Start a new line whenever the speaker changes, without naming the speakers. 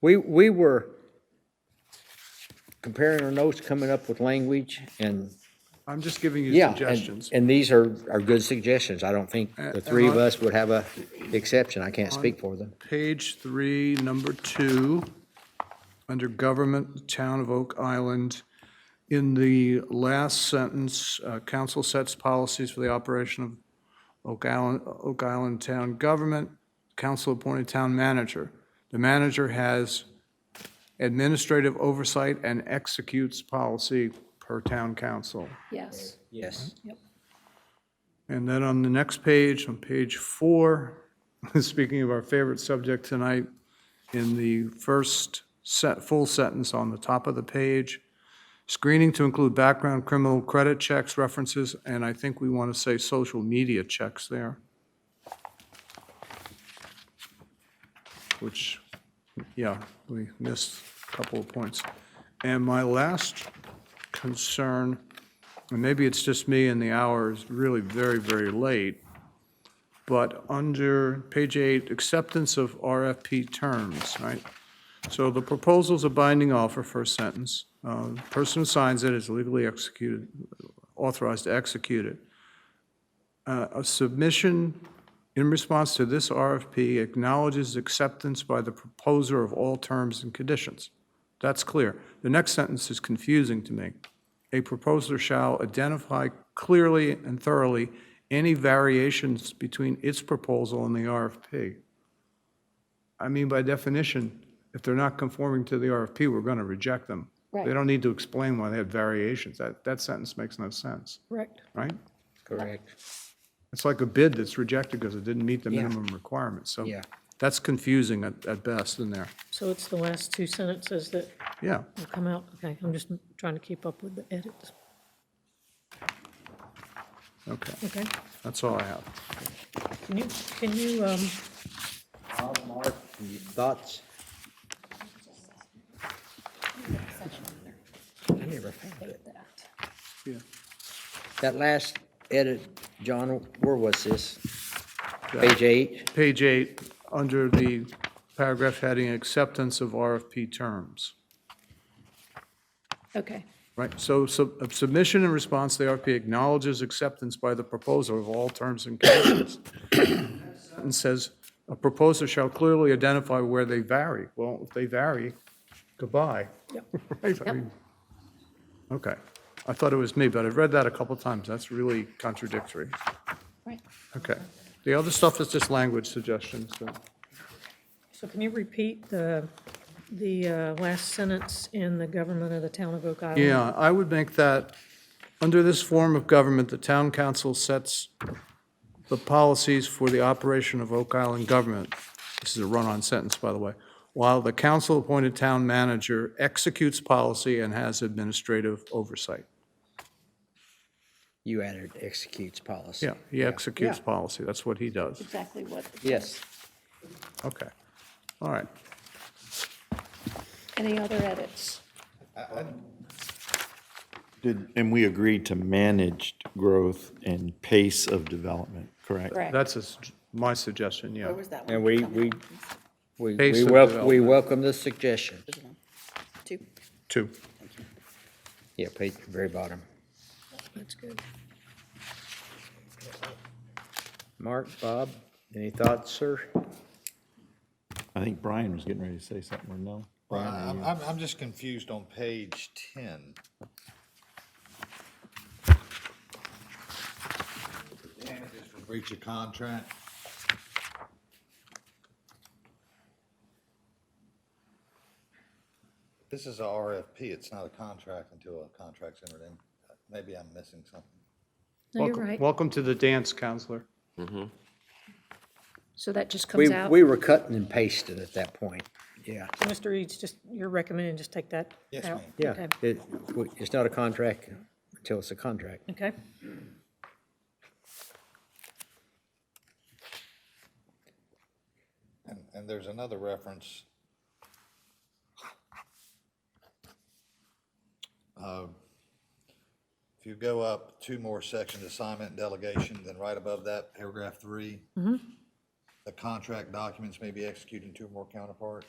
We, we were comparing our notes, coming up with language and,
I'm just giving you
yeah. and-
suggestions.
And these are, are good suggestions. I don't think the three of us would have a exception. I can't speak for them.
Page three, number two, under government, town of Oak Island, in the last sentence, uh, council sets policies for the operation of Oak Island, Oak Island town government, council appointed town manager. The manager has administrative oversight and executes policy per town council.
Yes.
Yes.
And then on the next page, on page four, speaking of our favorite subject tonight, in the first set, full sentence on the top of the page, screening to include background criminal credit checks, references, and I think we want to say social media checks there. Which, yeah, we missed a couple of points. And my last concern and maybe it's just me and the hour is really very, very late, but under page eight, acceptance of RFP terms, right? So the proposal's a binding offer, first sentence. Uh, the Person who signs it is legally executed, authorized to execute it. Uh, A submission in response to this RFP acknowledges acceptance by the proposer of all terms and conditions. That's clear. The next sentence is confusing to me. A proposer shall identify clearly and thoroughly any variations between its proposal and the RFP. I mean, by definition, if they're not conforming to the RFP, we're going to reject them. They
Right.
don't need to explain why they had variations. That, that sentence makes no sense,
Correct.
right?
Correct.
It's like a bid that's rejected because it didn't meet the minimum requirements. So
Yeah.
that's confusing at, at best in there.
So it's the last two sentences that
Yeah.
will come out? Okay, I'm just trying to keep up with the edits.
Okay.
Okay,
That's all I have.
can you, can you, um,
Bob, Mark, thoughts? I never found it.
Yeah.
That last edit, John, where was this? Page eight?
Page eight, under the paragraph heading, acceptance of RFP terms.
Okay.
Right, so sub- a submission in response to the RFP acknowledges acceptance by the proposer of all terms and conditions. And says, a proposer shall clearly identify where they vary. Well, if they vary, goodbye. Right, I mean- Okay, I thought it was me, but I've read that a couple times, that's really contradictory.
Right.
Okay, the other stuff is just language suggestions, so-
so can you repeat the, the uh, last sentence in the government of the town of Oak Island?
Yeah, I would make that, under this form of government, the town council sets the policies for the operation of Oak Island government. This is a run-on sentence, by the way. While the council-appointed town manager executes policy and has administrative oversight.
You added executes policy.
Yeah, he executes
Yeah.
policy, that's what he does.
Exactly what,
Yes.
Okay, all right.
any other edits?
Did, and we agreed to managed growth and pace of development, correct?
Correct.
That's a s- my suggestion, yeah.
And we, we, we,
Pace
we
of
wel, we welcome the suggestion.
Two.
Two.
Yeah, page, very bottom.
That's good.
Mark, Bob, any thoughts, sir?
I think Brian was getting ready to say something, or no? Brian,
I- I'm, I'm, I'm just confused on page ten. Damages for breach of contract. This is a RFP, it's not a contract until a contract's entered in. Maybe I'm missing something.
No, you're
Welcome-
right.
Welcome to the dance, counselor.
So that just
We,
comes out?
we were cutting and pasting at that point. Yeah.
So Mr. Eads, just, you're recommending just take that
Yes,
out?
ma'am.
Yeah,
Okay.
it, we- it's not a contract until it's a contract.
Okay,
And, and there's another reference. Um, If you go up two more sections, assignment and delegation, then right above that, paragraph three. The contract documents may be executed in two or more counterparts.